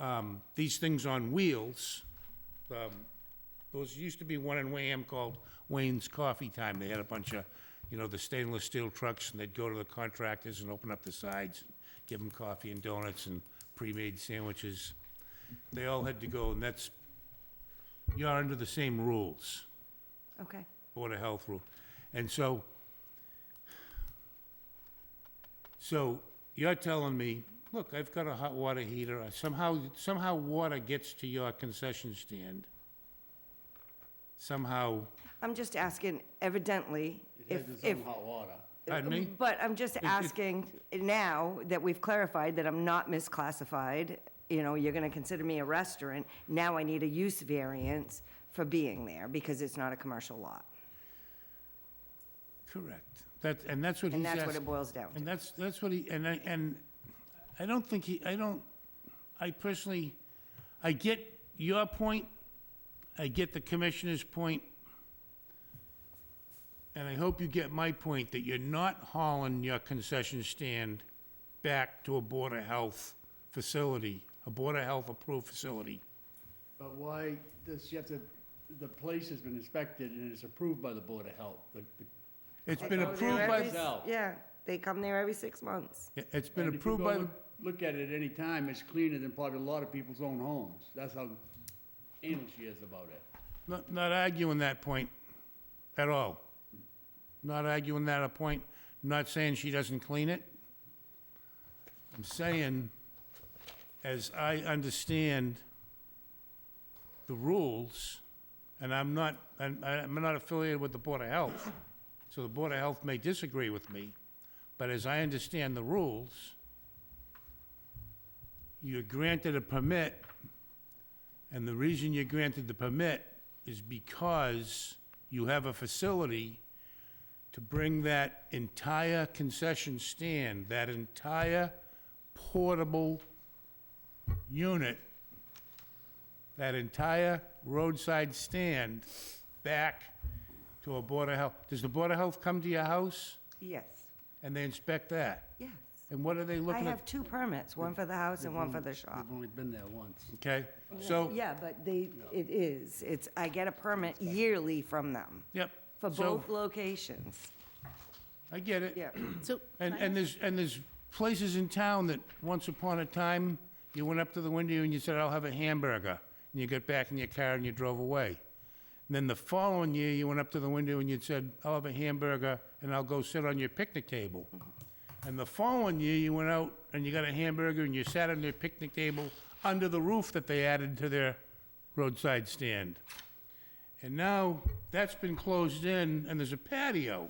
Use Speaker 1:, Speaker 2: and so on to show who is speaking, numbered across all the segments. Speaker 1: um, these things on wheels, um, those used to be one in Wareham called Wayne's Coffee Time. They had a bunch of, you know, the stainless steel trucks, and they'd go to the contractors and open up the sides, give them coffee and donuts and pre-made sandwiches. They all had to go, and that's, you're under the same rules.
Speaker 2: Okay.
Speaker 1: Board of Health rule. And so, so you're telling me, look, I've got a hot water heater, somehow, somehow water gets to your concession stand. Somehow,
Speaker 2: I'm just asking evidently if, if,
Speaker 3: hot water.
Speaker 1: pardon me?
Speaker 2: but I'm just asking now that we've clarified that I'm not misclassified, you know, you're gonna consider me a restaurant, now I need a use variance for being there because it's not a commercial lot.
Speaker 1: Correct. That, and that's what he's
Speaker 2: And
Speaker 1: asking.
Speaker 2: that's what it boils down
Speaker 1: And
Speaker 2: to.
Speaker 1: that's, that's what he, and I, and I don't think he, I don't, I personally, I get your point, I get the commissioner's point, and I hope you get my point, that you're not hauling your concession stand back to a Board of Health facility, a Board of Health-approved facility.
Speaker 3: But why, this, you have to, the place has been inspected and it's approved by the Board of Health. The- the-
Speaker 1: It's
Speaker 2: They
Speaker 1: been
Speaker 2: go there
Speaker 3: uh,
Speaker 1: approved by,
Speaker 2: every s-
Speaker 3: No.
Speaker 2: Yeah, they come there every six months.
Speaker 1: it's been
Speaker 3: and if you
Speaker 1: approved
Speaker 3: go
Speaker 1: by, the
Speaker 3: look- Look at it any time, it's cleaner than probably a lot of people's own homes. That's how anal she is about it.
Speaker 1: Not, not arguing that point at all. Not arguing that a point, not saying she doesn't clean it. I'm saying, as I understand the rules, and I'm not, and I- I'm not affiliated with the Board of Health, so the Board of Health may disagree with me, but as I understand the rules, you're granted a permit and the reason you're granted the permit is because you have a facility to bring that entire concession stand, that entire portable unit, that entire roadside stand back to a Board of Health. Does the Board of Health come to your house
Speaker 2: Yes,
Speaker 1: and they inspect that?
Speaker 2: yes.
Speaker 1: And what are they
Speaker 2: I
Speaker 1: looking
Speaker 2: have
Speaker 1: at?
Speaker 2: two permits, one for the house and one for the shop.
Speaker 3: I've only been there once.
Speaker 1: Okay, so,
Speaker 2: Yeah, but they, it is, it's, I get a permit yearly from them
Speaker 1: yep.
Speaker 2: for
Speaker 1: so
Speaker 2: both locations,
Speaker 1: I get it.
Speaker 2: yeah.
Speaker 4: So,
Speaker 1: And, and there's, and there's places in town that once upon a time, you went up to the window and you said, I'll have a hamburger. And you got back in your car and you drove away. And then the following year, you went up to the window and you said, I'll have a hamburger and I'll go sit on your picnic table. And the following year, you went out and you got a hamburger and you sat on their picnic table under the roof that they added to their roadside stand. And now that's been closed in and there's a patio.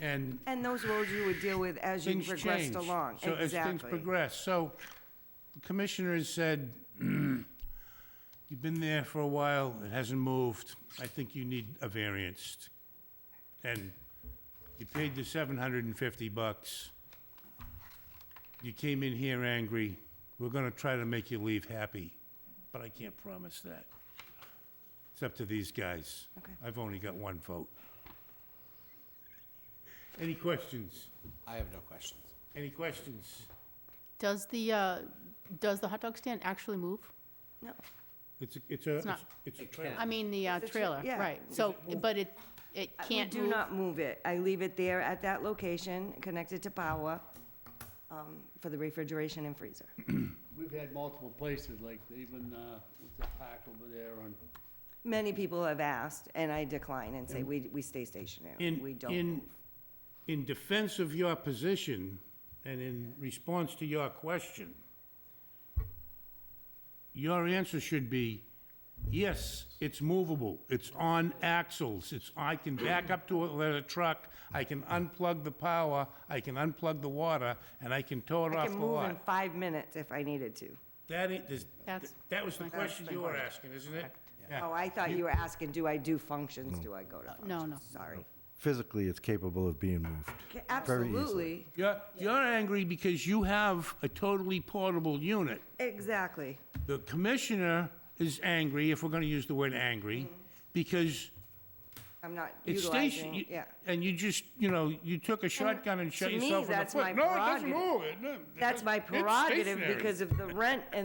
Speaker 1: And
Speaker 2: And those roads you would deal with as you
Speaker 1: things
Speaker 2: progressed
Speaker 1: change.
Speaker 2: along,
Speaker 1: So as things
Speaker 2: exactly.
Speaker 1: progress, so the commissioner has said, "Hmm, you've been there for a while, it hasn't moved, I think you need a variance. And you paid the seven hundred and fifty bucks. You came in here angry, we're gonna try to make you leave happy, but I can't promise that. It's up to these guys.
Speaker 2: Okay.
Speaker 1: I've only got one vote. Any questions?
Speaker 5: I have no questions.
Speaker 1: Any questions?
Speaker 4: does the, uh, does the hot dog stand actually move?
Speaker 2: No,
Speaker 1: It's, a- it's a, it's-
Speaker 4: not-
Speaker 1: it's a
Speaker 5: It
Speaker 1: trailer.
Speaker 4: I mean, the uh,
Speaker 2: It's a tra-
Speaker 4: trailer,
Speaker 2: yeah.
Speaker 4: right. So, but it, it
Speaker 2: Uh, we
Speaker 4: can't
Speaker 2: do
Speaker 4: move?
Speaker 2: not move it. I leave it there at that location, connected to power, um, for the refrigeration and freezer.
Speaker 3: We've had multiple places, like even, uh, what's the park over there on,
Speaker 2: Many people have asked, and I decline and say, we, we stay stationary,
Speaker 1: In-
Speaker 2: we don't
Speaker 1: in-
Speaker 2: move.
Speaker 1: In defense of your position and in response to your question, your answer should be, yes, it's movable, it's on axles, it's, I can back up to it with a truck, I can unplug the power, I can unplug the water, and I can tow it
Speaker 2: I
Speaker 1: off
Speaker 2: can
Speaker 1: the
Speaker 2: move in
Speaker 1: lot.
Speaker 2: five minutes if I needed to.
Speaker 1: That ain't, this-
Speaker 4: That's-
Speaker 1: that was the
Speaker 4: That's
Speaker 1: question
Speaker 4: my
Speaker 1: you were
Speaker 4: question.
Speaker 1: asking, isn't it?
Speaker 2: Oh, I thought you were asking, do I do functions? Do I go to functions?
Speaker 4: no, no.
Speaker 2: Sorry.
Speaker 6: physically it's capable of being moved.
Speaker 2: Ca-
Speaker 6: Very easily.
Speaker 2: Absolutely,
Speaker 1: You're, you're angry because you have a totally portable unit.
Speaker 2: exactly.
Speaker 1: The commissioner is angry, if we're gonna use the word angry, because
Speaker 2: I'm not
Speaker 1: it's
Speaker 2: Mm-hmm. utilizing,
Speaker 1: station,
Speaker 2: it, yeah.
Speaker 1: and you just, you know, you took a shotgun and shot
Speaker 2: to me,
Speaker 1: yourself in the
Speaker 2: that's my
Speaker 1: foot. No, it doesn't
Speaker 2: prerogative.
Speaker 1: move. It- no, it
Speaker 2: That's my
Speaker 1: doesn't- it's
Speaker 2: prerogative
Speaker 1: stationary.
Speaker 2: because of the rent and